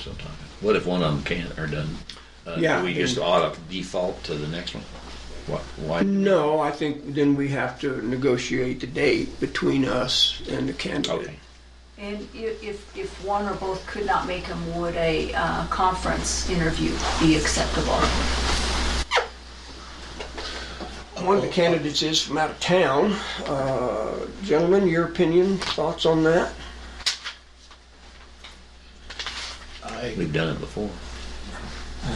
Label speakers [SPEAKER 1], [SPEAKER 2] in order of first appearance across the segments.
[SPEAKER 1] sometime. What if one of them can't or doesn't? Uh, do
[SPEAKER 2] Yeah,
[SPEAKER 1] we
[SPEAKER 2] I
[SPEAKER 1] just
[SPEAKER 2] mean-
[SPEAKER 1] ought to default to the next one? What, why?
[SPEAKER 2] No, I think then we have to negotiate the date between us and the candidate.
[SPEAKER 1] Okay.
[SPEAKER 3] And i- if, if one or both could not make them, would a uh, conference interview be acceptable?
[SPEAKER 2] One of the candidates is from out of town. Uh, Gentlemen, your opinion, thoughts on that?
[SPEAKER 4] I
[SPEAKER 1] We've done it before.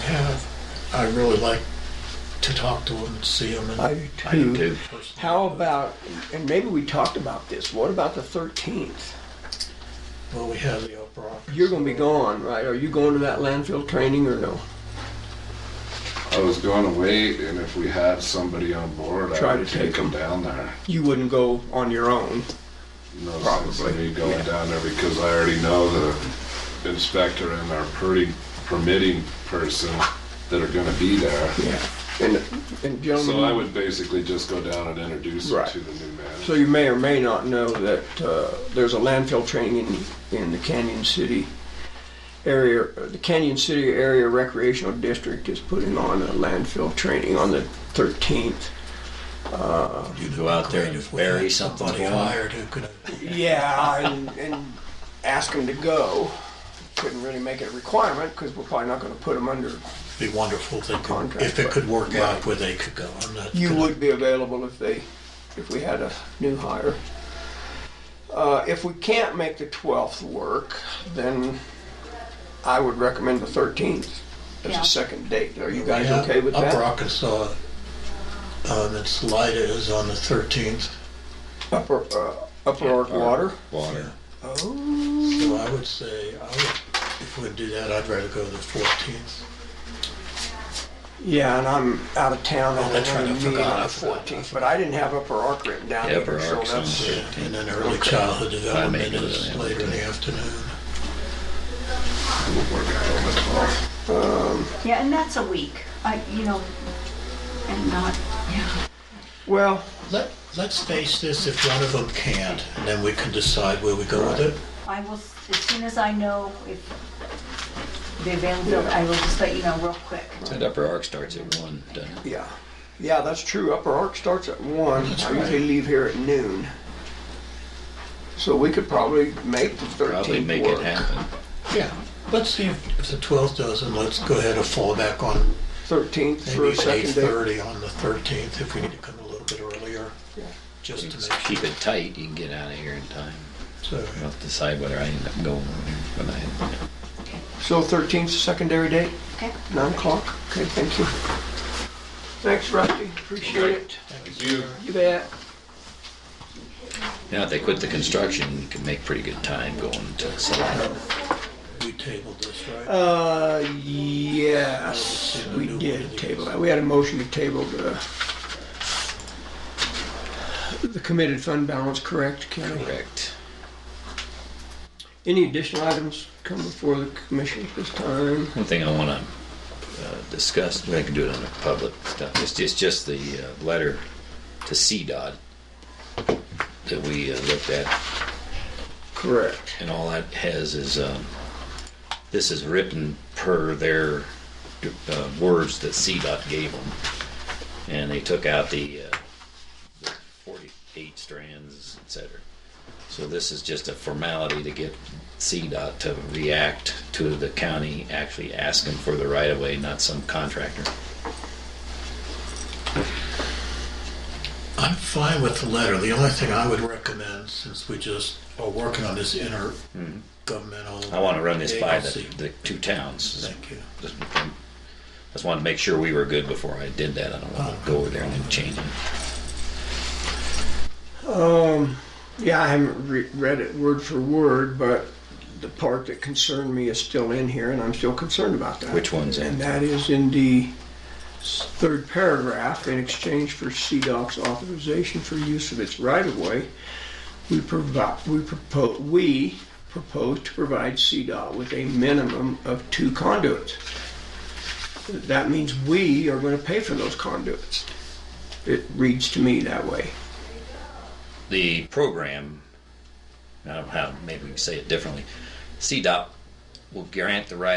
[SPEAKER 4] have, I really like to talk to them and see them.
[SPEAKER 2] I
[SPEAKER 4] And
[SPEAKER 2] do
[SPEAKER 1] I do
[SPEAKER 2] too.
[SPEAKER 1] too.
[SPEAKER 4] personally.
[SPEAKER 2] How about, and maybe we talked about this, what about the 13th?
[SPEAKER 4] Well, we have the Opera.
[SPEAKER 2] You're gonna be gone, right? Are you going to that landfill training or no?
[SPEAKER 5] I was going to wait, and if we had somebody on board,
[SPEAKER 2] Try
[SPEAKER 5] I would
[SPEAKER 2] to take
[SPEAKER 5] take them down there.
[SPEAKER 2] You wouldn't go on your own.
[SPEAKER 5] No sense
[SPEAKER 2] Probably,
[SPEAKER 5] in me going down there because I already know the inspector and our pretty permitting person that are going to be there.
[SPEAKER 2] Yeah. And, and
[SPEAKER 5] So I
[SPEAKER 2] gentlemen,
[SPEAKER 5] would basically just go down and introduce them
[SPEAKER 2] Right.
[SPEAKER 5] to the new
[SPEAKER 2] so
[SPEAKER 5] manager.
[SPEAKER 2] you may or may not know that, uh, there's a landfill training in, in the Canyon City area, the Canyon City Area Recreational District is putting on a landfill training on the 13th.
[SPEAKER 4] You'd
[SPEAKER 1] Go out there and bury something
[SPEAKER 4] Somebody
[SPEAKER 1] for 'em.
[SPEAKER 4] hired who could,
[SPEAKER 2] Yeah, and, and ask them to go. Couldn't really make it a requirement because we're probably not gonna put them under.
[SPEAKER 4] be wonderful if they could,
[SPEAKER 2] Contract,
[SPEAKER 4] if it could work
[SPEAKER 2] right.
[SPEAKER 4] out where they could go. I'm not
[SPEAKER 2] You
[SPEAKER 4] gonna-
[SPEAKER 2] would be available if they, if we had a new hire. Uh, if we can't make the 12th work, then I would recommend the 13th as
[SPEAKER 3] Yeah.
[SPEAKER 2] a second date. Are you
[SPEAKER 4] We
[SPEAKER 2] guys
[SPEAKER 4] have
[SPEAKER 2] okay with that?
[SPEAKER 4] Upper Arkansas, um, it's Lida is on the thirteenth,
[SPEAKER 2] Upper, uh, Upper Ark Water?
[SPEAKER 1] Water.
[SPEAKER 2] Oh,
[SPEAKER 4] so I would say, I would, if we'd do that, I'd rather go the fourteenth.
[SPEAKER 2] yeah, and I'm out of town on
[SPEAKER 4] Oh, that's right, I
[SPEAKER 2] another meeting
[SPEAKER 4] forgot,
[SPEAKER 2] on the
[SPEAKER 4] I forgot.
[SPEAKER 2] 14th, but I didn't have Upper Ark written down
[SPEAKER 1] Yeah, Upper
[SPEAKER 2] either, so
[SPEAKER 1] Ark's on
[SPEAKER 2] that's.
[SPEAKER 1] there.
[SPEAKER 4] And then early childhood
[SPEAKER 1] I
[SPEAKER 4] development
[SPEAKER 1] may do
[SPEAKER 4] is
[SPEAKER 1] that.
[SPEAKER 4] later in the afternoon.
[SPEAKER 3] Yeah, and that's a week, I, you know, and not, yeah.
[SPEAKER 2] Well,
[SPEAKER 4] Let, let's face this, if one of them can't, and then we can decide where we go with it.
[SPEAKER 3] I will, s- as soon as I know if the availability, I will just let you know real quick.
[SPEAKER 1] That upper arc starts at one, doesn't it?
[SPEAKER 2] Yeah, yeah, that's true. Upper Ark starts at one.
[SPEAKER 4] That's
[SPEAKER 2] I
[SPEAKER 4] right.
[SPEAKER 2] usually leave here at noon. So we could probably make the
[SPEAKER 1] Probably
[SPEAKER 2] thirteenth
[SPEAKER 1] make it
[SPEAKER 2] work.
[SPEAKER 1] happen.
[SPEAKER 4] Yeah. Let's see if, if the twelfth doesn't, let's go ahead and fall back on
[SPEAKER 2] Thirteenth for
[SPEAKER 4] maybe
[SPEAKER 2] a
[SPEAKER 4] it's eight
[SPEAKER 2] second day.
[SPEAKER 4] thirty on the thirteenth, if we need to come a little bit earlier.
[SPEAKER 2] Yeah.
[SPEAKER 4] Just to make
[SPEAKER 1] Keep
[SPEAKER 4] sure.
[SPEAKER 1] it tight, you can get out of here in time.
[SPEAKER 4] So,
[SPEAKER 1] I'll have to decide whether I end up going or when I,
[SPEAKER 2] So thirteenth, secondary date,
[SPEAKER 3] Okay?
[SPEAKER 2] nine o'clock. Okay, thank you. Thanks, Rusty. Appreciate
[SPEAKER 5] Okay.
[SPEAKER 2] it.
[SPEAKER 5] Thank you.
[SPEAKER 2] You bet.
[SPEAKER 1] now if they quit the construction, you can make pretty good time going until seven.
[SPEAKER 4] we tabled this, right?
[SPEAKER 2] Uh, yes, we did table that. We had a motion to table the the committed fund balance, correct, Kelly?
[SPEAKER 1] Correct.
[SPEAKER 2] Any additional items come before the commission at this time?
[SPEAKER 1] One thing I want to uh, discuss, we can do it on the public stuff, it's, it's just the uh, letter to CDOT that we uh, looked at,
[SPEAKER 2] Correct.
[SPEAKER 1] and all that has is, um, this is written per their uh, words that CDOT gave them, and they took out the uh, the 48 strands, et cetera. So this is just a formality to get CDOT to react to the county actually asking for the right of way, not some contractor.
[SPEAKER 4] I'm fine with the letter. The only thing I would recommend, since we just are working on this intergovernmental.
[SPEAKER 1] Hmm. I want to run this by the,
[SPEAKER 4] agency-
[SPEAKER 1] the two towns.
[SPEAKER 4] Thank you.
[SPEAKER 1] Just, just wanted to make sure we were good before I did that. I don't want to go over there and then change it.
[SPEAKER 2] Um, yeah, I haven't re- read it word for word, but the part that concerned me is still in here, and I'm still concerned about that.
[SPEAKER 1] Which one's in?
[SPEAKER 2] And that is in the s- third paragraph, in exchange for CDOC's authorization for use of its right-of-way, we provide, we propose, we propose to provide CDOT with a minimum of two conduits. That means we are gonna pay for those conduits. It reads to me that way.
[SPEAKER 1] the program, I don't know how, maybe we can say it differently, CDOT will grant the right